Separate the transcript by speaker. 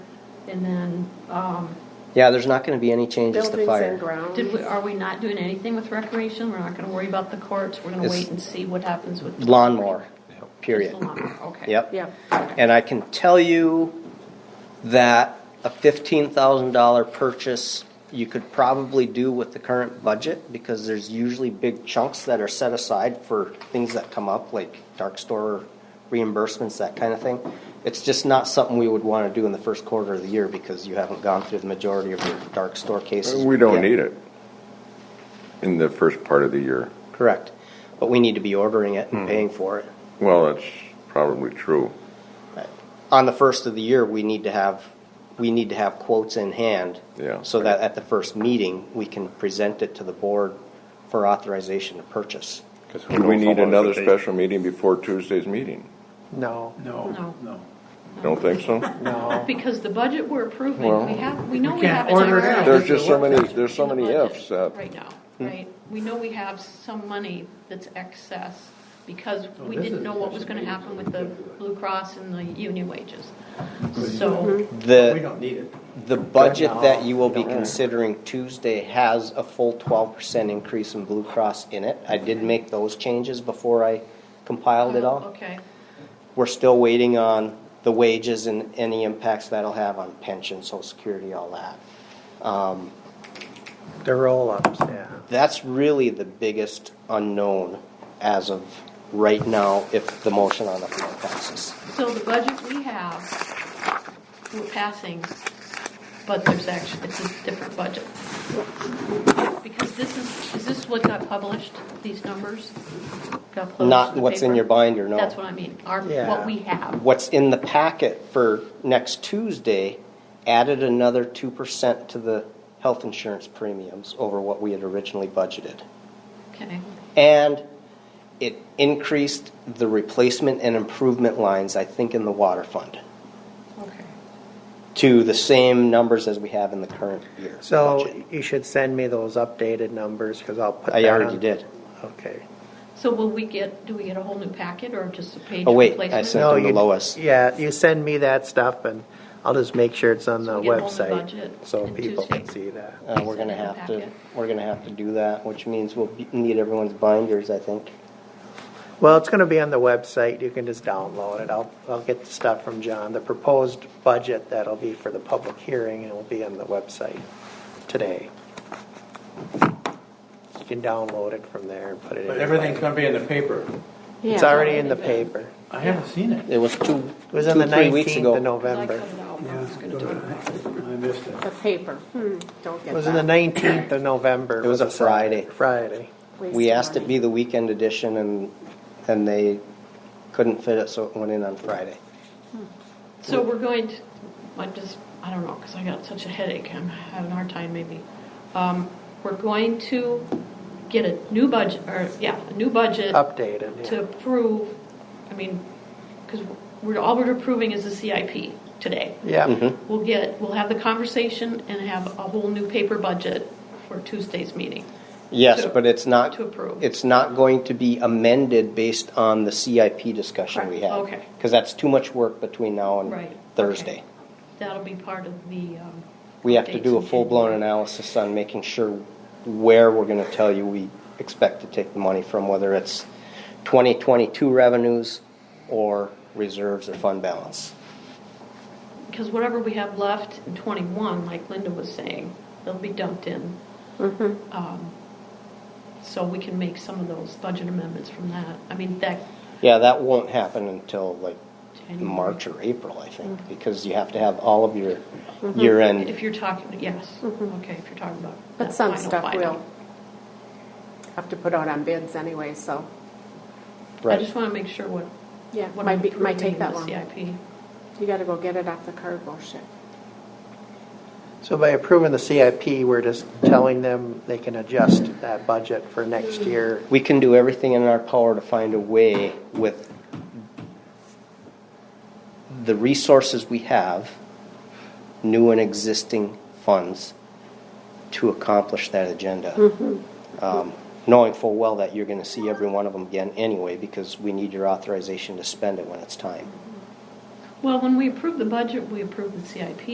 Speaker 1: and then, um,
Speaker 2: Yeah, there's not going to be any changes to
Speaker 3: Buildings
Speaker 2: fire.
Speaker 3: and grounds.
Speaker 1: did we, are we not doing anything with recreation? We're not gonna worry about the courts, we're gonna
Speaker 2: It's
Speaker 1: wait and see what happens with.
Speaker 2: Lawnmower, period.
Speaker 1: Just the lawnmower, Okay.
Speaker 2: Yep.
Speaker 3: Yeah.
Speaker 2: And I can tell you that a $15,000 purchase, you could probably do with the current budget because there's usually big chunks that are set aside for things that come up, like dark store reimbursements, that kind of thing. It's just not something we would want to do in the first quarter of the year because you haven't gone through the majority of your dark store cases.
Speaker 4: We don't
Speaker 2: yet.
Speaker 4: need it in the first part of the year.
Speaker 2: Correct. But we need to be ordering it
Speaker 4: Hmm.
Speaker 2: and paying for it.
Speaker 4: Well, that's probably true.
Speaker 2: on the first of the year, we need to have, we need to have quotes in hand.
Speaker 4: Yeah.
Speaker 2: So that at the first meeting, we can present it to the board for authorization to purchase.
Speaker 4: Do we need another special meeting before Tuesday's meeting?
Speaker 5: No,
Speaker 1: No.
Speaker 6: No, no.
Speaker 4: Don't think so?
Speaker 5: no.
Speaker 1: Because the budget we're approving,
Speaker 4: Well,
Speaker 1: we have, we know
Speaker 6: we
Speaker 1: we have.
Speaker 6: can't
Speaker 1: it in
Speaker 6: order it
Speaker 1: our-
Speaker 6: out.
Speaker 4: There's just so many, there's so
Speaker 1: in the
Speaker 4: many
Speaker 1: budget
Speaker 4: ifs that. Hmm.
Speaker 1: Right now, right? We know we have some money that's excess because we
Speaker 6: Oh, this
Speaker 1: didn't
Speaker 6: is
Speaker 1: know what was
Speaker 6: special
Speaker 1: gonna
Speaker 6: meeting,
Speaker 1: happen
Speaker 6: so
Speaker 1: with
Speaker 6: we
Speaker 1: the
Speaker 6: can't do it.
Speaker 1: Blue Cross and the union wages.
Speaker 6: So you- Mhm.
Speaker 1: So,
Speaker 6: We
Speaker 2: The,
Speaker 6: don't need it.
Speaker 2: the budget that you will be
Speaker 5: Don't worry.
Speaker 2: considering Tuesday has a full twelve percent increase in Blue Cross in it. I did make those changes before I compiled it all.
Speaker 1: Oh, okay,
Speaker 2: We're still waiting on the wages and any impacts that'll have on pension, social security, all that. Um,
Speaker 5: The roll-ups, yeah.
Speaker 2: That's really the biggest unknown as of right now, if the motion on the floor passes.
Speaker 1: so the budget we have, we're passing, but there's actually, it's a different budget. Because this is, is this what got published, these numbers? Got published
Speaker 2: Not
Speaker 1: the
Speaker 2: what's in
Speaker 1: paper?
Speaker 2: your binder, no.
Speaker 1: That's what I mean, our,
Speaker 5: Yeah.
Speaker 1: what we have.
Speaker 2: What's in the packet for next Tuesday added another two percent to the health insurance premiums over what we had originally budgeted.
Speaker 1: Okay,
Speaker 2: And it increased the replacement and improvement lines, I think, in the water fund
Speaker 1: okay.
Speaker 2: to the same numbers as we have in the current year. budget.
Speaker 5: So you should send me those updated numbers, because I'll put that
Speaker 2: I already
Speaker 5: on-
Speaker 2: did.
Speaker 5: Okay.
Speaker 1: So will we get, do we get a whole new packet or just a page
Speaker 2: Oh, wait, I
Speaker 1: replacement?
Speaker 2: sent
Speaker 5: No,
Speaker 2: them to
Speaker 5: you-
Speaker 2: Lois.
Speaker 5: Yeah, you send me that stuff, and I'll just make sure it's on
Speaker 1: So
Speaker 5: the
Speaker 1: we get a whole new
Speaker 5: website,
Speaker 1: budget
Speaker 5: so
Speaker 1: on
Speaker 5: people can
Speaker 1: Tuesday.
Speaker 5: see that.
Speaker 2: Uh, we're gonna have to, we're gonna have to do that, which means we'll be- need everyone's binders, I think.
Speaker 5: Well, it's gonna be on the website, you can just download it, I'll, I'll get the stuff from John. The proposed budget, that'll be for the public hearing, and will be on the website today. You can download it from there and put it in.
Speaker 6: But
Speaker 5: your
Speaker 6: everything's
Speaker 5: binder.
Speaker 6: gonna be in the paper.
Speaker 5: It's already in the paper.
Speaker 6: I haven't seen it.
Speaker 2: It was two,
Speaker 5: It was on
Speaker 2: two,
Speaker 5: the
Speaker 2: three weeks
Speaker 5: nineteenth
Speaker 2: ago.
Speaker 5: of November.
Speaker 6: I missed it.
Speaker 3: The paper, hmm, don't
Speaker 5: It
Speaker 3: get
Speaker 5: was on the
Speaker 3: that.
Speaker 5: nineteenth of November.
Speaker 2: It was a
Speaker 5: the Saturday-
Speaker 2: Friday.
Speaker 5: Friday.
Speaker 3: Waste
Speaker 2: We
Speaker 3: of
Speaker 2: asked it
Speaker 3: money.
Speaker 2: be the weekend edition and, and they couldn't fit it, so it went in on Friday.
Speaker 1: So we're going to, I just, I don't know, because I got such a headache, I'm having a hard time maybe. Um, We're going to get a new budget, or, yeah, a new budget
Speaker 5: Updated,
Speaker 1: to
Speaker 3: Mm-hmm.
Speaker 5: yeah.
Speaker 1: approve, I mean, because we're, all we're approving is the CIP today.
Speaker 5: Yeah,
Speaker 2: Mm-hmm.
Speaker 1: We'll get, we'll have the conversation and have a whole new paper budget for Tuesday's meeting.
Speaker 2: Yes,
Speaker 1: To-
Speaker 2: but it's not,
Speaker 1: to approve.
Speaker 2: Uh, it's not going to be amended based on the CIP discussion we
Speaker 1: Correct,
Speaker 2: had.
Speaker 1: okay.
Speaker 2: Cause that's too much work between now
Speaker 1: Right,
Speaker 2: and
Speaker 1: okay.
Speaker 2: Thursday.
Speaker 1: That'll be part of the. um,
Speaker 2: We have to
Speaker 1: updates
Speaker 2: do a
Speaker 1: in
Speaker 2: full-blown
Speaker 1: January.
Speaker 2: analysis on making sure where we're gonna tell you we expect to take the money from, whether it's 2022 revenues or reserves or fund balance.
Speaker 1: Because whatever we have left in '21, like Linda was saying, they'll be dumped in.
Speaker 3: Mm-hmm.
Speaker 1: Um, So we can make some of those budget amendments from that. I mean, that,
Speaker 2: Yeah, that won't happen until like
Speaker 1: January.
Speaker 2: March or April, I think, because you have to have all of your year-end.
Speaker 1: if you're talking, yes, okay, if you're talking about.
Speaker 3: Mm-hmm. But
Speaker 1: that
Speaker 3: some
Speaker 1: final,
Speaker 3: stuff
Speaker 1: final.
Speaker 3: will have to put out on bids anyway, so,
Speaker 1: I
Speaker 2: Right.
Speaker 1: just want to make sure what,
Speaker 3: yeah,
Speaker 1: what I'm
Speaker 3: might be, might
Speaker 1: approving
Speaker 3: take
Speaker 1: in
Speaker 3: that
Speaker 1: the
Speaker 3: long.
Speaker 1: CIP.
Speaker 3: You gotta go get it off the cargo ship.
Speaker 5: so by approving the CIP, we're just telling them they can adjust that budget for next year.
Speaker 2: We can do everything in our power to find a way with the resources we have, new and existing funds, to accomplish that agenda. Um, Knowing full well that you're gonna see every one of them again anyway, because we need your authorization to spend it when it's time.
Speaker 1: Well, when we approve the budget, we approve the CIP.